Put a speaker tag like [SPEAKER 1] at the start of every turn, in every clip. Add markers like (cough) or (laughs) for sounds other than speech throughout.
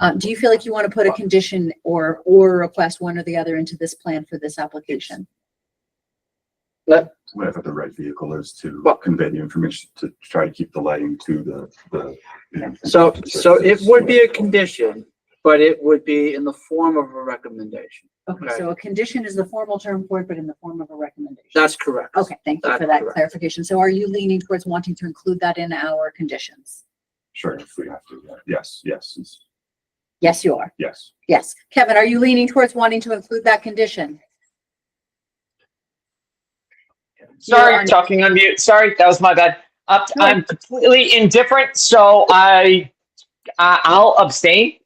[SPEAKER 1] Um, do you feel like you want to put a condition or, or request one or the other into this plan for this application?
[SPEAKER 2] whatever the right vehicle is to
[SPEAKER 3] Well-
[SPEAKER 2] convey the information, to try to keep the lighting to the, the. you know,
[SPEAKER 3] So, so it would be a condition, but it would be in the form of a recommendation.
[SPEAKER 1] Okay,
[SPEAKER 3] Okay.
[SPEAKER 1] so a condition is the formal term for it, but in the form of a recommendation.
[SPEAKER 3] That's correct.
[SPEAKER 1] Okay, thank you for
[SPEAKER 3] That's
[SPEAKER 1] that
[SPEAKER 3] correct.
[SPEAKER 1] clarification. So are you leaning towards wanting to include that in our conditions?
[SPEAKER 2] Sure, if we have to, yeah. yes, yes, it's-
[SPEAKER 1] Yes, you are.
[SPEAKER 2] yes.
[SPEAKER 1] Yes. Kevin, are you leaning towards wanting to include that condition? You are-
[SPEAKER 4] Sorry, talking on mute. Sorry, that was my bad. Up,
[SPEAKER 1] No.
[SPEAKER 4] I'm completely indifferent, so I, I- I'll abstain.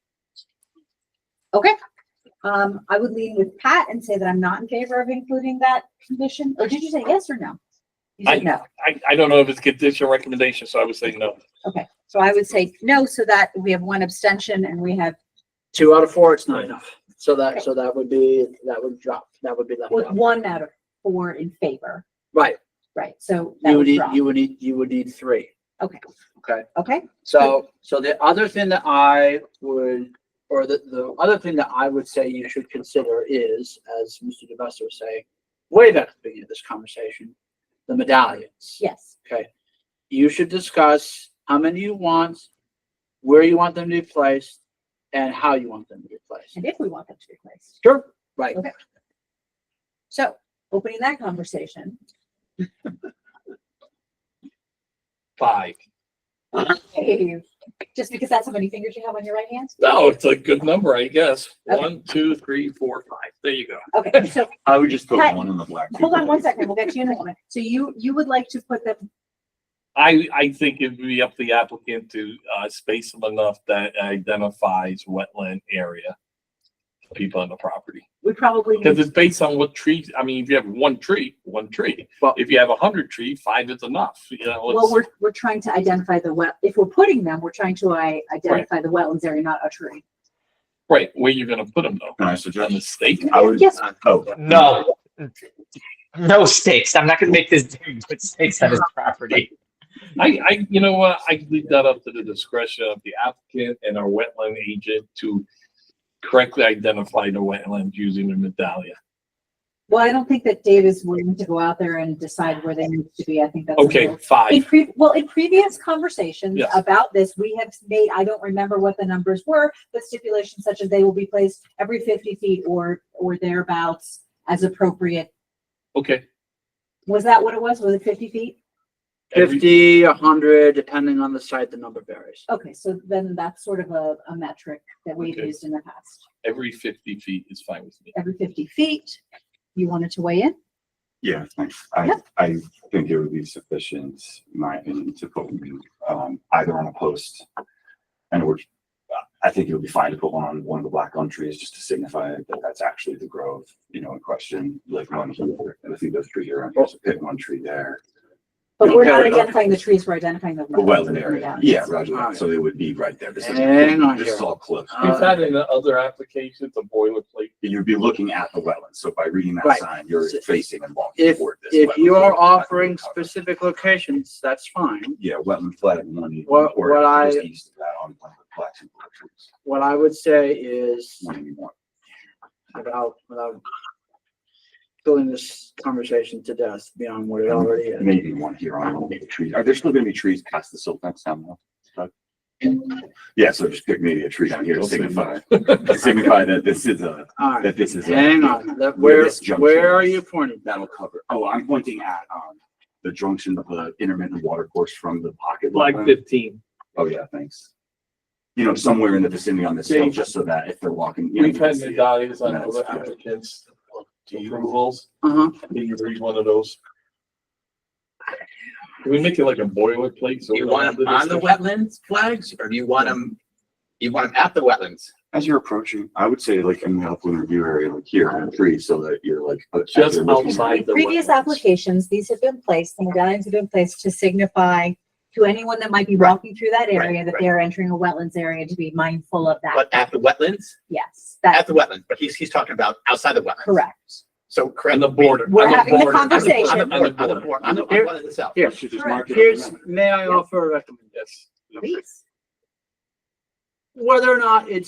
[SPEAKER 1] Um, I would lean with Pat and say that I'm not in favor of including that condition. Or did you say yes or no? You
[SPEAKER 5] I-
[SPEAKER 1] said no.
[SPEAKER 5] I, I don't know if it's condition or recommendation, so I would say no.
[SPEAKER 1] Okay, so I would say no, so that we have one abstention and we have,
[SPEAKER 3] Two out of four, it's not enough. So that, so that would be, that would drop, that would be left
[SPEAKER 1] with
[SPEAKER 3] out.
[SPEAKER 1] one out of four in favor,
[SPEAKER 3] Right,
[SPEAKER 1] right? So that
[SPEAKER 3] you would
[SPEAKER 1] was
[SPEAKER 3] need,
[SPEAKER 1] wrong.
[SPEAKER 3] you would need, you would need three.
[SPEAKER 1] Okay,
[SPEAKER 3] Okay.
[SPEAKER 1] okay,
[SPEAKER 3] So, so the other thing that I would, or the, the other thing that I would say you should consider is, as Mr. DeVesta was saying, way back at the beginning of this conversation, the medallions.
[SPEAKER 1] yes,
[SPEAKER 3] You should discuss how many you want, where you want them to be placed, and how you want them to be placed.
[SPEAKER 1] and if we want them to be placed.
[SPEAKER 3] Sure. Right.
[SPEAKER 1] So opening that conversation,
[SPEAKER 5] Five.
[SPEAKER 1] Dave, just because that's how many fingers you have on your right hand?
[SPEAKER 5] No, Oh, it's a good number, I guess.
[SPEAKER 1] Okay.
[SPEAKER 5] One, two, three, four, five. There you go.
[SPEAKER 1] Okay, so
[SPEAKER 2] I would just put
[SPEAKER 1] Pat-
[SPEAKER 2] one in the black.
[SPEAKER 1] hold on one second, we'll get to you in a moment. So you, you would like to put them,
[SPEAKER 5] I, I think it would be up to the applicant to, uh, space them enough that identifies wetland area. for People on the property,
[SPEAKER 1] we probably,
[SPEAKER 5] because
[SPEAKER 1] need-
[SPEAKER 5] it's based on what trees, I mean, if you have one tree, one tree.
[SPEAKER 3] Well-
[SPEAKER 5] If you have a hundred tree, five is enough, you know.
[SPEAKER 1] well,
[SPEAKER 5] it's-
[SPEAKER 1] we're, we're trying to identify the well, if we're putting them, we're trying to I, identify the wetlands area, not a tree.
[SPEAKER 5] Right, where you're gonna put them though,
[SPEAKER 2] Can I
[SPEAKER 5] on the
[SPEAKER 2] suggest?
[SPEAKER 5] stake.
[SPEAKER 2] I would-
[SPEAKER 1] Yes.
[SPEAKER 2] Oh.
[SPEAKER 4] No. No stakes. I'm not gonna make this (laughs) dude put stakes on his property.
[SPEAKER 5] I, I, you know what, I leave that up to the discretion of the applicant and our wetland agent to correctly identify the wetlands using the medallion.
[SPEAKER 1] Well, I don't think that Dave is willing to go out there and decide where they need to be. I think that's. a
[SPEAKER 5] Okay,
[SPEAKER 1] little- In
[SPEAKER 5] five,
[SPEAKER 1] pre, well, in previous conversations
[SPEAKER 5] Yes.
[SPEAKER 1] about this, we have made, I don't remember what the numbers were, but stipulations such as they will be placed every fifty feet or, or thereabouts as appropriate.
[SPEAKER 5] okay.
[SPEAKER 1] Was that what it was? Was it fifty feet?
[SPEAKER 5] Every-
[SPEAKER 3] Fifty, a hundred, depending on the site, the number varies.
[SPEAKER 1] Okay, so then that's sort of a, a metric that we've
[SPEAKER 5] Okay.
[SPEAKER 1] used in the past.
[SPEAKER 5] Every fifty feet is fine with me.
[SPEAKER 1] Every fifty feet, you wanted to weigh in?
[SPEAKER 2] Yeah, thanks. I,
[SPEAKER 1] Yep.
[SPEAKER 2] I think it would be sufficient, in my opinion, to put one, um, either on a post. And which, I think it would be fine to put one on one of the black gum trees, just to signify that that's actually the grove, you know, in question, like one here. And I think those trees are, there's a pit one tree there,
[SPEAKER 1] But we're
[SPEAKER 3] Okay.
[SPEAKER 1] not identifying the trees, we're identifying the.
[SPEAKER 2] a wetland area. Yeah, roger that.
[SPEAKER 3] Alright.
[SPEAKER 2] So it would be right there. This is,
[SPEAKER 3] Hang on
[SPEAKER 2] this is
[SPEAKER 3] here.
[SPEAKER 2] all cliff.
[SPEAKER 3] Uh,
[SPEAKER 5] We've had in the other applications, a boilerplate.
[SPEAKER 2] You'd be looking at the wetland. So by reading that
[SPEAKER 3] Right.
[SPEAKER 2] sign, you're facing and walking
[SPEAKER 3] If,
[SPEAKER 2] toward this.
[SPEAKER 3] if
[SPEAKER 2] wetland.
[SPEAKER 3] you are
[SPEAKER 2] So that's-
[SPEAKER 3] offering specific locations, that's fine.
[SPEAKER 2] Yeah, wetland flag one.
[SPEAKER 3] What-
[SPEAKER 2] or
[SPEAKER 3] what I-
[SPEAKER 2] just east of that on one of the black and blue trees.
[SPEAKER 3] What I would say is
[SPEAKER 2] One you want.
[SPEAKER 3] without, without filling this conversation to death beyond what it already is.
[SPEAKER 2] Maybe one here on one of the trees. Are there still gonna be trees past the silt fence down there? Yeah, so just pick maybe a tree down here to
[SPEAKER 5] Don't say
[SPEAKER 3] (laughs)
[SPEAKER 2] signify, to signify that this is a,
[SPEAKER 3] All right,
[SPEAKER 2] that this is a.
[SPEAKER 3] hang on, that,
[SPEAKER 2] where
[SPEAKER 3] where,
[SPEAKER 2] this junction
[SPEAKER 3] where are
[SPEAKER 2] is.
[SPEAKER 3] you pointing?
[SPEAKER 2] That'll cover. Oh, I'm pointing at, um, the junction of the intermittent water course from the pocket. wetland.
[SPEAKER 5] fifteen.
[SPEAKER 2] Oh, yeah, thanks. You know, somewhere in the vicinity on this hill,
[SPEAKER 5] Dave,
[SPEAKER 2] just so that if they're walking. you know, you
[SPEAKER 5] We've
[SPEAKER 2] can
[SPEAKER 5] had
[SPEAKER 2] see it.
[SPEAKER 5] medallions on
[SPEAKER 2] That's
[SPEAKER 5] other
[SPEAKER 2] good.
[SPEAKER 5] applicants. Approvals,
[SPEAKER 3] Uh-huh,
[SPEAKER 5] can you read one of those? Can we make it like a boilerplate? so
[SPEAKER 6] Do you
[SPEAKER 5] we don't
[SPEAKER 6] want
[SPEAKER 5] have
[SPEAKER 6] them on the
[SPEAKER 5] discussion?
[SPEAKER 6] wetlands flags or do you want them, you want them at the wetlands?
[SPEAKER 2] As you're approaching, I would say like in the upland review area, like here on the tree, so that you're like. uh, as
[SPEAKER 5] Just
[SPEAKER 2] you're looking-
[SPEAKER 5] outside the
[SPEAKER 1] Previous
[SPEAKER 5] wetlands.
[SPEAKER 1] applications, these have been placed, the medallions have been placed to signify to anyone that might be walking through that area
[SPEAKER 6] right,
[SPEAKER 1] that
[SPEAKER 6] right.
[SPEAKER 1] they are entering a wetlands area to be mindful of that.
[SPEAKER 6] But at the wetlands,
[SPEAKER 1] Yes,
[SPEAKER 6] at
[SPEAKER 1] that's
[SPEAKER 6] the wetlands, but he's, he's talking about outside the wetlands.
[SPEAKER 1] correct.
[SPEAKER 6] So correct.
[SPEAKER 5] On the border.
[SPEAKER 1] We're
[SPEAKER 5] On the
[SPEAKER 1] having a
[SPEAKER 5] border.
[SPEAKER 6] On the- On the
[SPEAKER 1] conversation.
[SPEAKER 5] On the
[SPEAKER 6] board, on the board, on the
[SPEAKER 3] Here-
[SPEAKER 6] wetland itself.
[SPEAKER 3] here,
[SPEAKER 2] You should just mark it.
[SPEAKER 3] here's, may I offer a recommendation?
[SPEAKER 5] Yes.
[SPEAKER 1] Please.
[SPEAKER 3] Whether or not it's